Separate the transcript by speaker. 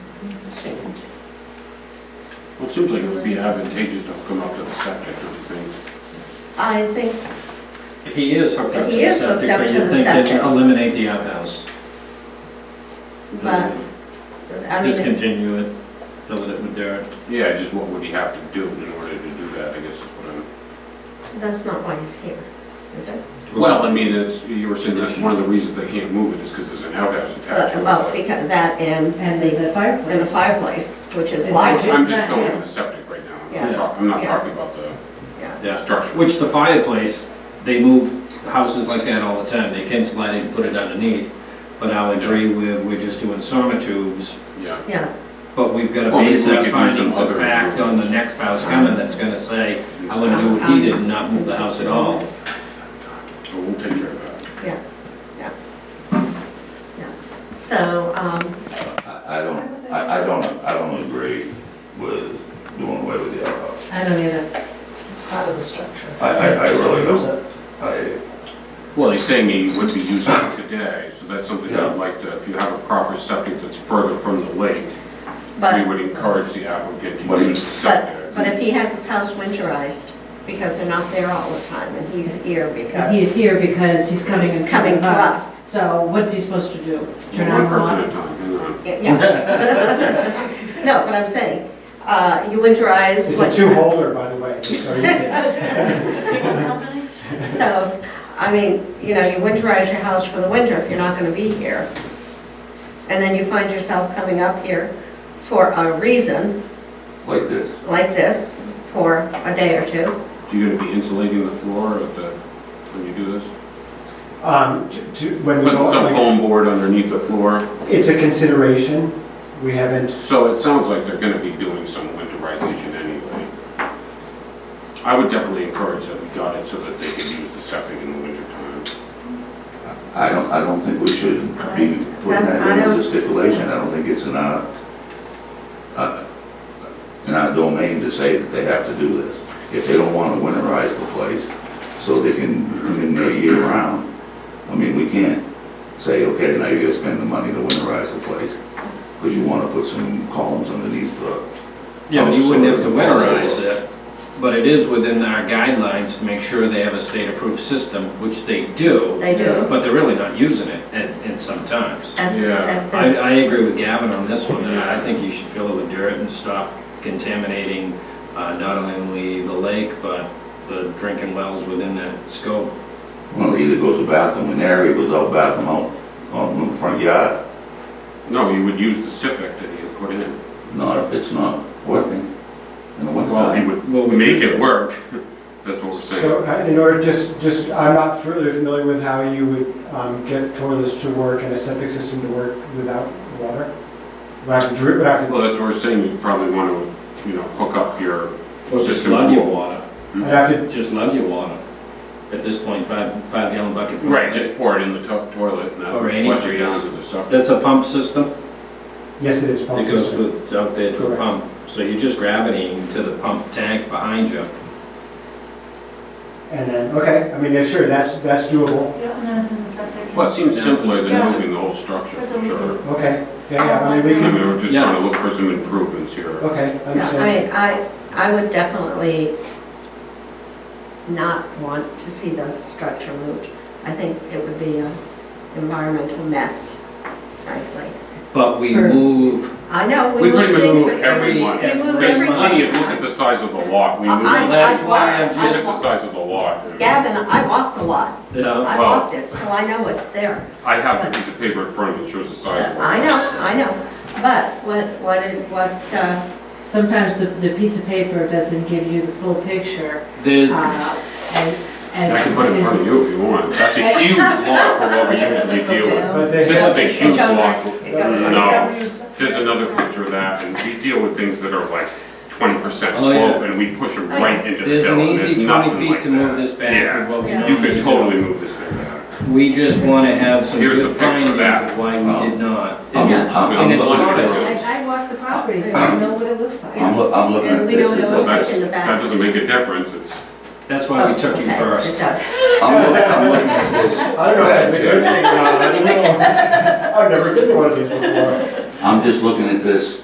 Speaker 1: Well, it seems like it would be advantageous to come up to the septic, don't you think?
Speaker 2: I think,
Speaker 3: He is hooked up to
Speaker 2: He
Speaker 3: the
Speaker 2: is hooked
Speaker 3: septic,
Speaker 2: up
Speaker 3: but
Speaker 2: to
Speaker 3: you
Speaker 2: the
Speaker 3: think they'd
Speaker 2: septic.
Speaker 3: eliminate the outhouse,
Speaker 2: but, I mean,
Speaker 3: discontinue it, fill it with dirt.
Speaker 1: Yeah, just what would he have to do in order to do that, I guess is what I'm...
Speaker 2: that's not why he's here, is it?
Speaker 1: Well, I mean, it's, you were saying that's one of the reasons they can't move it is because there's an outhouse attached
Speaker 2: But- Well,
Speaker 1: to it.
Speaker 2: because that and
Speaker 4: And the- the fireplace.
Speaker 2: and a fireplace, which is
Speaker 4: It's
Speaker 2: larger.
Speaker 4: larger.
Speaker 1: I'm just
Speaker 4: that-
Speaker 1: going
Speaker 4: yeah.
Speaker 1: for the septic right now. I'm
Speaker 2: Yeah.
Speaker 1: not talk- I'm not
Speaker 2: Yeah.
Speaker 1: talking about the
Speaker 2: Yeah.
Speaker 3: Yeah,
Speaker 1: structure.
Speaker 3: which the fireplace, they move houses like that all the time, they can slide it and put it underneath. But I'll agree with, we're just doing sonotubes,
Speaker 1: Yeah,
Speaker 2: Yeah,
Speaker 3: but we've got to
Speaker 1: Well, maybe
Speaker 3: base
Speaker 1: we
Speaker 3: our
Speaker 1: could do
Speaker 3: findings
Speaker 1: some
Speaker 3: of
Speaker 1: other
Speaker 3: fact on the
Speaker 1: improvements.
Speaker 3: next
Speaker 2: Uh,
Speaker 3: house coming that's gonna say, I want to do what
Speaker 2: um,
Speaker 3: he did and not move the house at all.
Speaker 1: so we'll take care of that.
Speaker 2: so, um,
Speaker 5: I I don't, I, I don't, I don't agree with doing away with the outhouse.
Speaker 4: I don't either.
Speaker 6: It's part of the structure.
Speaker 5: I, I, I
Speaker 6: Just
Speaker 5: really
Speaker 6: use
Speaker 5: don't. I,
Speaker 1: Well, he's saying he would be using it today, so that's something
Speaker 5: Yeah.
Speaker 1: I'd like to, if you have a proper septic that's further from the lake, we
Speaker 2: but,
Speaker 1: would encourage the applicant
Speaker 5: But
Speaker 1: to
Speaker 5: he-
Speaker 1: use the
Speaker 2: but,
Speaker 1: septic.
Speaker 2: but if he has his house winterized, because they're not there all the time, and he's here
Speaker 4: And He's
Speaker 2: because,
Speaker 4: here because he's coming in front
Speaker 2: Coming
Speaker 4: of
Speaker 2: to
Speaker 4: us. So what's he supposed to do? Turn
Speaker 1: One
Speaker 4: on the
Speaker 1: person
Speaker 4: water?
Speaker 1: at a time, hang on.
Speaker 2: Yeah, yeah. No, but I'm saying, uh, you winterize.
Speaker 6: It's
Speaker 2: what-
Speaker 6: a two-holder, by the way, just so you can,
Speaker 2: So, I mean, you know, you winterize your house for the winter if you're not gonna be here. And then you find yourself coming up here for a reason
Speaker 5: like this.
Speaker 2: like this for a day or two.
Speaker 1: You're uh, gonna be insulating the floor at the, when you do this?
Speaker 6: um, to- to, when we
Speaker 1: Putting some
Speaker 6: go,
Speaker 1: foam board underneath the floor?
Speaker 6: it's a consideration. We haven't,
Speaker 1: So it sounds like they're gonna be doing some winterization anyway. I would definitely encourage that we got it so that they could use the septic in the wintertime.
Speaker 5: I don't, I don't think we should be putting that in as a stipulation. I don't think it's in our, uh, in our domain to say that they have to do this. If they don't want to winterize the place so they can come in there year round, I mean, we can't say, okay, now you're gonna spend the money to winterize the place because you want to put some columns underneath the
Speaker 3: Yeah, but you wouldn't have to winterize it, but it is within our guidelines to make sure they have a state-approved system, which they do,
Speaker 2: They do.
Speaker 3: but they're really not using it at, at some times.
Speaker 2: At-
Speaker 1: Yeah.
Speaker 2: at
Speaker 3: I,
Speaker 2: this-
Speaker 3: I agree with Gavin on this one, and I think you should fill it with dirt and stop contaminating, uh, not only the lake, but the drinking wells within that scope.
Speaker 5: Well, either goes to bathroom in there, or it goes out bathroom out, out in the front yard,
Speaker 1: No, you would use the septic that he had put in.
Speaker 5: not if it's not working in the winter
Speaker 1: Well, he
Speaker 5: time.
Speaker 1: would
Speaker 3: Well, we
Speaker 1: make
Speaker 3: should-
Speaker 1: it work. That's what we're saying.
Speaker 6: so uh, in order, just, just, I'm not really familiar with how you would um, get toilets to work and a septic system to work without water. Would I have to drip, would I have to,
Speaker 1: Well, that's what we're saying, you probably wanna, you know, hook up your,
Speaker 3: Or just
Speaker 1: System
Speaker 3: love your
Speaker 1: pool.
Speaker 3: water,
Speaker 1: Mm-hmm.
Speaker 6: I'd have to,
Speaker 3: just love your water. At this point, five, five gallon bucket. full of
Speaker 1: right,
Speaker 3: it.
Speaker 1: just pour it in the to- toilet and that
Speaker 3: Or
Speaker 1: would
Speaker 3: any
Speaker 1: flush it
Speaker 3: trees.
Speaker 1: down to the septic.
Speaker 3: That's a pump system?
Speaker 6: yes, it is pump
Speaker 3: It goes
Speaker 6: system.
Speaker 3: to, out there to a
Speaker 6: Correct.
Speaker 3: pump, so you're just gravitating to the pump tank behind you.
Speaker 6: And then, okay, I mean, yeah, sure, that's, that's doable.
Speaker 7: Yeah, and then it's in the septic.
Speaker 1: Well, it seems simpler
Speaker 7: Yeah.
Speaker 1: than moving the whole structure, for
Speaker 7: That's what we
Speaker 1: sure.
Speaker 6: Okay, yeah, yeah, I mean, we
Speaker 1: I
Speaker 6: can,
Speaker 1: mean, we're just trying to look for some improvements here.
Speaker 6: okay,
Speaker 2: Yeah,
Speaker 6: understand.
Speaker 2: I, I, I would definitely not want to see the structure moved. I think it would be an environmental mess, frankly.
Speaker 3: But we
Speaker 4: For-
Speaker 3: move,
Speaker 2: I know.
Speaker 1: We pretty much
Speaker 2: things
Speaker 1: move
Speaker 2: for free.
Speaker 1: everyone.
Speaker 2: We move
Speaker 1: There's plenty of,
Speaker 2: everything.
Speaker 1: look at the size of the lot, we
Speaker 2: I-
Speaker 1: move,
Speaker 2: I-
Speaker 1: look
Speaker 3: that's why I'm
Speaker 2: I-
Speaker 1: at
Speaker 3: just,
Speaker 1: the size of the lot.
Speaker 2: Gavin, I walked the lot.
Speaker 3: you know,
Speaker 2: I
Speaker 1: Well-
Speaker 2: walked it, so I know it's there.
Speaker 1: I have a piece of paper in front of me that shows the
Speaker 2: So,
Speaker 1: size of the
Speaker 2: I
Speaker 1: lot.
Speaker 2: know, I know. But what, what, it- what, uh,
Speaker 4: Sometimes the, the piece of paper doesn't give you the full picture.
Speaker 3: there's,
Speaker 4: uh, And, and.
Speaker 1: I can put it in front of you if you want, that's a huge lot for what we usually deal with.
Speaker 6: But they-
Speaker 1: This is a huge
Speaker 2: goes-
Speaker 1: lot.
Speaker 2: it goes
Speaker 1: No.
Speaker 2: like this.
Speaker 1: There's another picture of that, and we deal with things that are like twenty percent
Speaker 3: Oh, yeah.
Speaker 1: slope, and we push them
Speaker 2: Oh, yeah.
Speaker 1: right into the
Speaker 3: there's
Speaker 1: hill,
Speaker 3: an
Speaker 1: and
Speaker 3: easy
Speaker 1: there's
Speaker 3: twenty
Speaker 1: nothing
Speaker 3: feet
Speaker 1: like
Speaker 3: to move
Speaker 1: that.
Speaker 3: this back
Speaker 1: Yeah.
Speaker 3: with what we
Speaker 2: You
Speaker 1: You
Speaker 3: normally
Speaker 1: could
Speaker 3: do.
Speaker 1: totally move this thing back.
Speaker 3: We just wanna have some
Speaker 1: Here's the
Speaker 3: good
Speaker 1: picture of
Speaker 3: findings of
Speaker 1: that.
Speaker 3: why we did not.
Speaker 5: I'm-
Speaker 3: It's-
Speaker 5: I'm-
Speaker 3: And
Speaker 5: I'm
Speaker 3: it's
Speaker 5: looking
Speaker 3: sort
Speaker 5: at
Speaker 3: of,
Speaker 5: it.
Speaker 4: I, I walked the property, so I know what it looks like.
Speaker 5: I'm, loo- I'm looking
Speaker 2: And
Speaker 5: at
Speaker 2: we
Speaker 5: this,
Speaker 2: don't
Speaker 5: as
Speaker 2: know
Speaker 5: a-
Speaker 2: Well,
Speaker 1: That's,
Speaker 2: it's in the back. Oh,
Speaker 1: that doesn't make a difference, it's,
Speaker 3: that's why we took you
Speaker 2: Okay, It
Speaker 3: first.
Speaker 2: does.
Speaker 5: I'm looking, I'm looking at this.
Speaker 6: I don't know if that's a good
Speaker 5: as a-
Speaker 6: thing or not, I don't know. I've never been to one of these before.
Speaker 5: I'm just looking at this